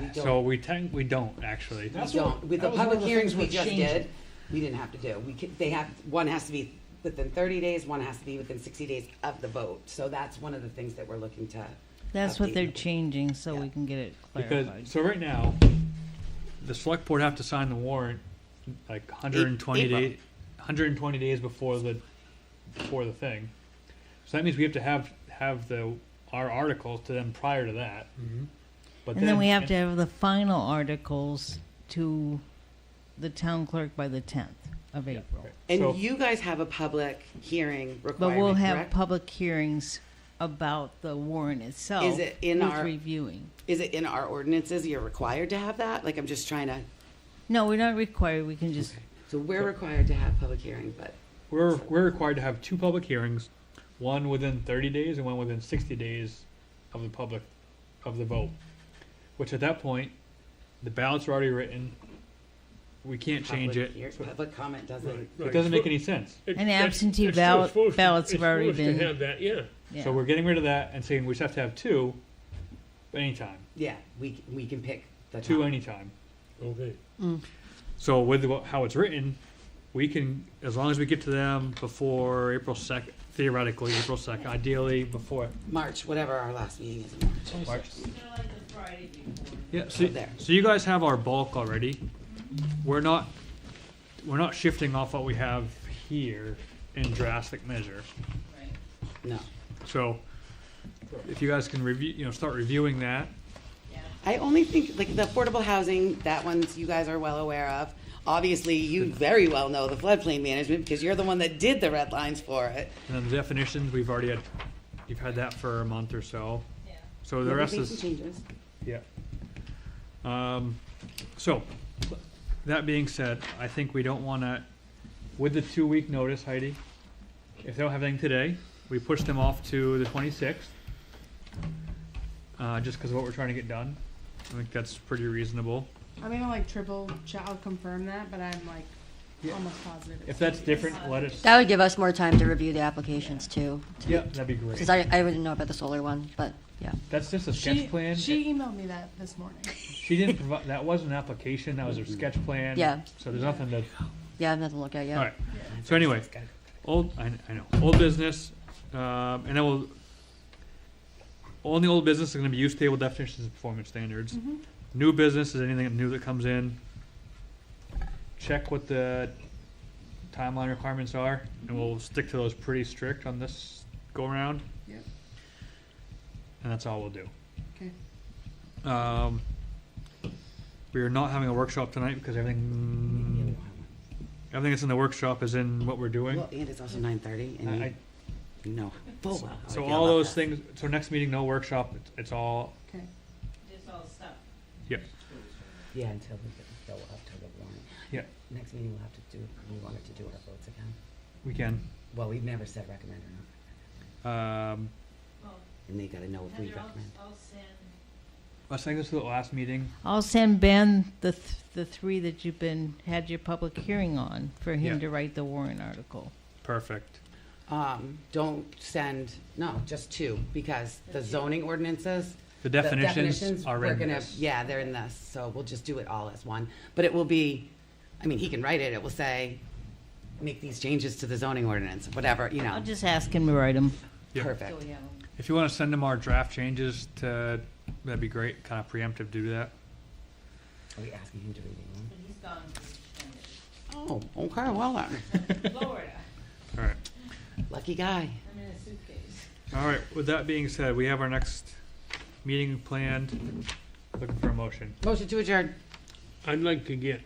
we So don't, we tech, we don't, actually. we That's don't, what- with that the was one of public the hearings things we we're just changing. did, we didn't have to do, we could, they have, one has to be within thirty days, one has to be within sixty days of the vote, so that's one of the things that we're looking to. That's what update. they're changing, so we Yeah. can get it Because, clarified. so right now, the select board have to sign the warrant like hundred and twenty April. days, hundred and twenty days before the, before the thing. So that means we have to have, have the, our articles to them prior to that. But And then we have to have the final articles to the town clerk by the tenth of April. And So- you guys have a public hearing But requirement, we'll have correct? public hearings about the warrant itself. it in who's our- Reviewing. Is it in our ordinances, you're required to have that? Like, I'm just trying to, No, we're not required, we can just, so we're required to have public hearing, but We're, we're required to have two public hearings, one within thirty days and one within sixty days of the public, of the vote. Which at that point, the ballots are already written. We can't change public it. hear- Public comment doesn't, It doesn't make any sense. It- And that's- absentee it's still ballot- supposed to- ballots have it's already supposed to been- have that, yeah. So yeah, we're getting rid of that and saying we just have to have two anytime, yeah, we, c- we can pick the two time. anytime. Okay. So with what- how it's written, we can, as long as we get to them before April second, theoretically, April second, ideally before March, whatever our last meeting is in March. March. Yeah, so, Up there. so you guys have our bulk already. We're not, we're not shifting off what we have here in drastic measure. No. So if you guys can review, you know, start reviewing that. I only think, like, the affordable housing, that one's, you guys are well aware of. Obviously, you very well know the floodplain management because you're the one that did the red lines for it. And then the definitions, we've already had, you've had that for a month or so. So the rest We've made some is, Changes. yeah. Um, so, that being said, I think we don't wanna, with the two-week notice, Heidi, if they don't have anything today, we push them off to the twenty-sixth. Uh, just cause of what we're trying to get done. I think that's pretty reasonable. I'm gonna like triple check. I'll confirm that, but I'm like almost positive. it's If that's two different, let us, That would give us more time to review the applications too. yeah, that'd be great. Because I, I wouldn't know about the solar one, but yeah. That's just a days. She, sketch plan. she emailed me that this morning. She didn't provide, that was an application, that was her sketch plan. Yeah. So there's nothing to, Yeah, I have nothing to look at yet. alright, so anyway, old, I, I know, old business, um, and then we'll, only old business is gonna be use table definitions and performance standards. New business is anything new that comes in. Check what the timeline requirements are, and we'll stick to those pretty strict on this go-around, Yep. and that's all we'll do. Okay. Um, we are not having a workshop tonight because everything, everything that's in the workshop is in what we're doing. Well, and it's also nine thirty, I- and I- you know full well. how I So feel all about that. those things, so next meeting, no workshop, it's, it's all, Okay. yeah, Yeah, until we get- go up to the warrant. yeah, Next meeting, we'll have to do, we wanted to do our votes again. we can. Well, we've never said recommend or not, Um, and they gotta know if we recommend. let's take this to the last meeting. I'll send Ben the, th- the three that you've been, had your public hearing on for him Yeah. to write the warrant article. Perfect. Um, don't send, no, just two, because the zoning ordinances, The the definitions are we're in gonna- this. Yeah, they're in this, so we'll just do it all as one, but it will be, I mean, he can write it, it will say, make these changes to the zoning ordinance, whatever, you I'll know, just ask him to write them. Yeah. perfect. If you wanna send them our draft changes to, that'd be great, kinda preemptive, do that. Are we asking him to read it? Oh, okay, well, then. Florida. Alright, lucky guy. I'm in a suitcase. alright, with that being said, we have our next meeting planned. Looking for a motion. Motion to adjourn. I'd like to get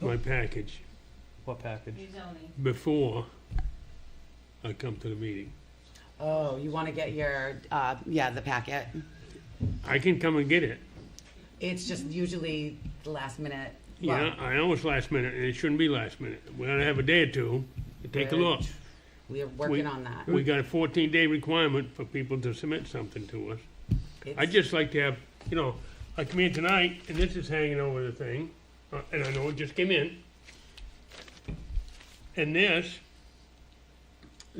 my package What package? He's only. before I come to the meeting. Oh, you want to get your, uh, yeah, the packet. I can come and get it. It's just usually the last minute. Yeah, Well, I know it's last minute, and it shouldn't be last minute. We're gonna have a day or two to take a look. We are We- working on that. We got a fourteen day requirement for people to submit something to us. I'd It's- just like to have, you know, I come in tonight, and this is hanging over the thing, uh, and I know it just came in. And this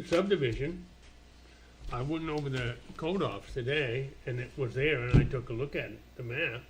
subdivision, I went over the code office today, and it was there, and I took a look at it, the map.